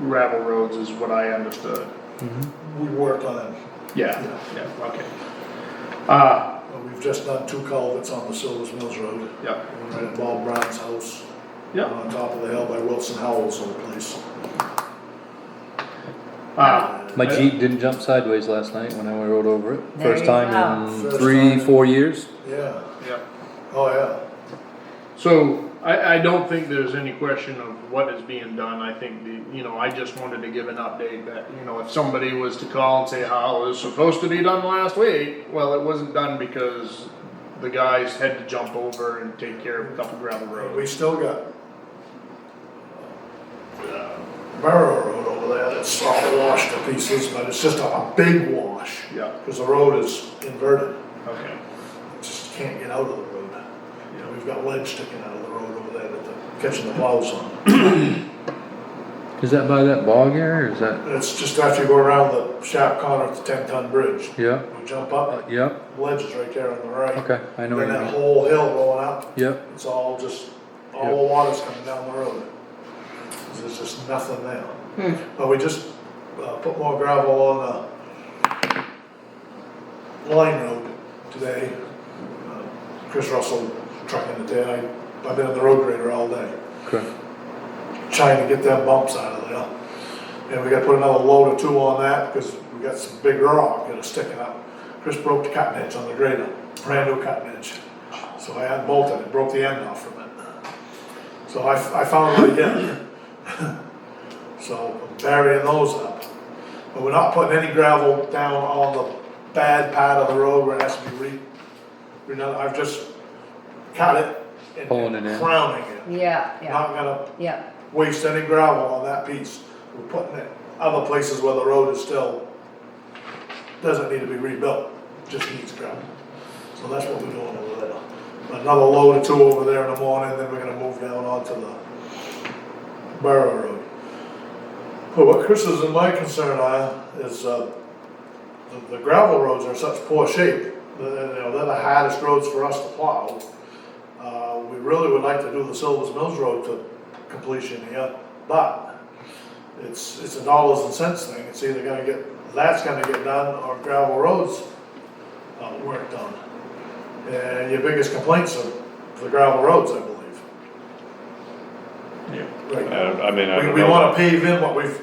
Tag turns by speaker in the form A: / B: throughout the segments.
A: gravel roads is what I understood.
B: We work on it,
A: Yeah, yeah, okay. Uh,
B: Uh, we've just done two culverts on the Silver's Mills Road,
A: yeah,
B: one right at Bob Brown's house.
A: yeah.
B: On top of the hill by Wilson Howell's old place.
A: Uh,
C: My Jeep didn't jump sideways last night when I rode over it.
D: There
C: First
D: you
C: time
D: go.
C: in
B: First
C: three,
B: time.
C: four years.
B: Yeah,
A: yeah.
B: oh, yeah,
A: So I, I don't think there's any question of what is being done. I think the, you know, I just wanted to give an update that, you know, if somebody was to call and say how it was supposed to be done last week, well, it wasn't done because the guys had to jump over and take care of a couple gravel roads.
B: we still got. uh, Borough Road over there that's all washed to pieces, but it's just a big wash.
A: Yeah.
B: Cause the road is inverted,
A: Okay.
B: just can't get out of the road. You know, we've got lead sticking out of the road over there that they're catching the plows on.
C: Is that by that bog area or is that?
B: It's just after you go around the sharp corner of the ten ton bridge.
C: Yeah,
B: You jump up,
C: yeah,
B: ledge is right there on the right.
C: okay, I know. what
B: And
C: you
B: that
C: mean.
B: whole hill going up,
C: Yep,
B: it's all just,
C: Yep.
B: all the water's coming down the road. There's just nothing there. But we just, uh, put more gravel on the line road today. Uh, Chris Russell trucking it there. I, I've been on the road grader all day
C: correct.
B: trying to get them bumps out of there. And we gotta put another load or two on that, because we got some big rock that is sticking out. Chris broke the cutting edge on the grader, brand new cutting edge. So I unbolted it, broke the end off from it. So I, I found it again. So I'm burying those up. But we're not putting any gravel down on the bad part of the road where it has to be re, you know, I've just cut it and
C: Pulling it in.
B: crowning it.
D: Yeah, yeah,
B: Not gonna
D: yeah,
B: waste any gravel on that piece. We're putting it other places where the road is still, doesn't need to be rebuilt, just needs gravel. So that's what we're doing over there. Another load or two over there in the morning, then we're gonna move down onto the Borough Road. But what Chris's and my concern are is, uh, the- the gravel roads are in such poor shape, that, you know, they're the hardest roads for us to plow. Uh, we really would like to do the Silver's Mills Road to completion here, but it's, it's a dollars and cents thing, it's either gonna get, that's gonna get done, or gravel roads, uh, weren't done. And your biggest complaints are the gravel roads, I believe.
A: Yeah.
B: Right.
E: I I mean, I
B: We,
E: don't
B: we
E: know,
B: wanna pave in what we've,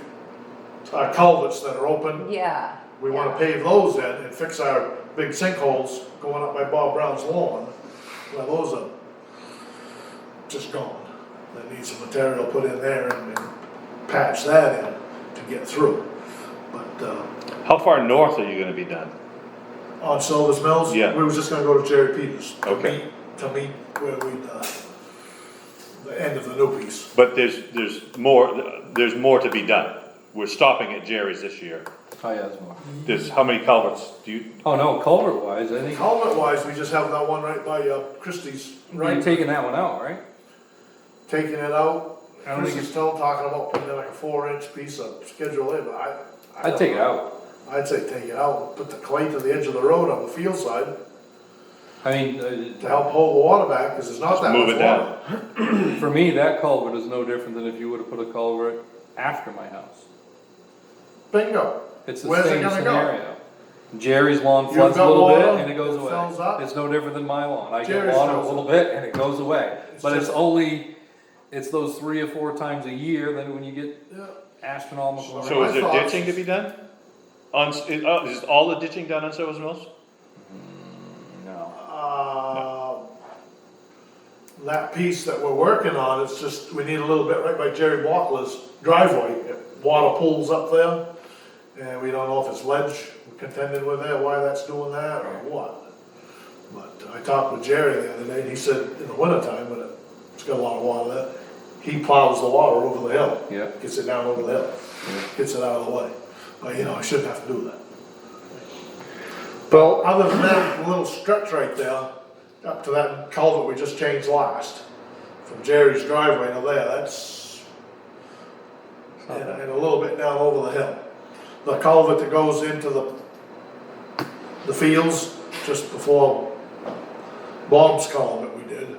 B: our culverts that are open,
D: yeah.
B: we wanna
D: yeah.
B: pave those in and fix our big sinkholes going up by Bob Brown's lawn. Well, those are just gone. They need some material put in there and and patch that in to get through. But, uh,
E: how far north are you gonna be done?
B: on Silver's Mills,
E: Yeah.
B: we was just gonna go to Jerry Peters. to
E: Okay.
B: meet- To meet where we, uh, the end of the new piece.
E: But there's, there's more, there's more to be done. We're stopping at Jerry's this year.
C: Hi, Asmar.
E: There's, how many culverts do you,
C: Oh, no, culvert wise, I think,
B: Helmet wise, we just have that one right by, uh, Christie's,
C: you're
B: right,
C: taking that one out, right?
B: taking it out.
C: I don't
B: Chris
C: think
B: is still talking about putting in like a four inch piece of schedule in, but I. I
C: I'd
B: don't
C: take it
B: know.
C: out.
B: I'd say take it out, and put the clay to the edge of the road on the field side
C: I mean,
B: to
C: uh,
B: help hold the water back, cause there's not that much
E: move
B: water.
E: it down.
C: for me, that culvert is no different than if you would've put a culvert after my house.
B: Bingo.
C: It's the
B: Where's it
C: same
B: gonna go?
C: scenario. Jerry's lawn
B: You've
C: floods a
B: got
C: little bit
B: water,
C: and it goes
B: it fills
C: away.
B: up.
C: It's no different than my lawn. I get
B: Jerry's
C: water a
B: fills
C: little bit and it goes away.
B: It's
C: But it's
B: just-
C: only, it's those three or four times a year that when you get
B: Yeah.
C: astronomical.
E: So
B: My
E: is there
B: thoughts-
E: ditching to be done? On, s- is uh, is all the ditching done on Silver's Mills?
C: No.
B: Uh, That piece that we're working on, it's just, we need a little bit right by Jerry Walkley's driveway. Water pools up there, and we don't know if it's ledge we're contending with there, why that's doing that or what. But I talked with Jerry the other day, and he said in the wintertime, when it's got a lot of water there, he plows the water over the hill.
C: Yeah.
B: Gets it down over the hill, gets it out of the way. But, you know, I shouldn't have to do that.
A: Well,
B: Other than that little stretch right there, up to that culvert we just changed last, from Jerry's driveway to there, that's, and, and a little bit down over the hill. The culvert that goes into the, the fields, just before Bob's culvert we did,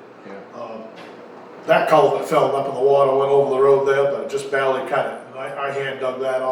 B: uh,
C: Yeah.
B: that culvert fell up in the water, went over the road there, but it just barely cut it. And I, I hand dug that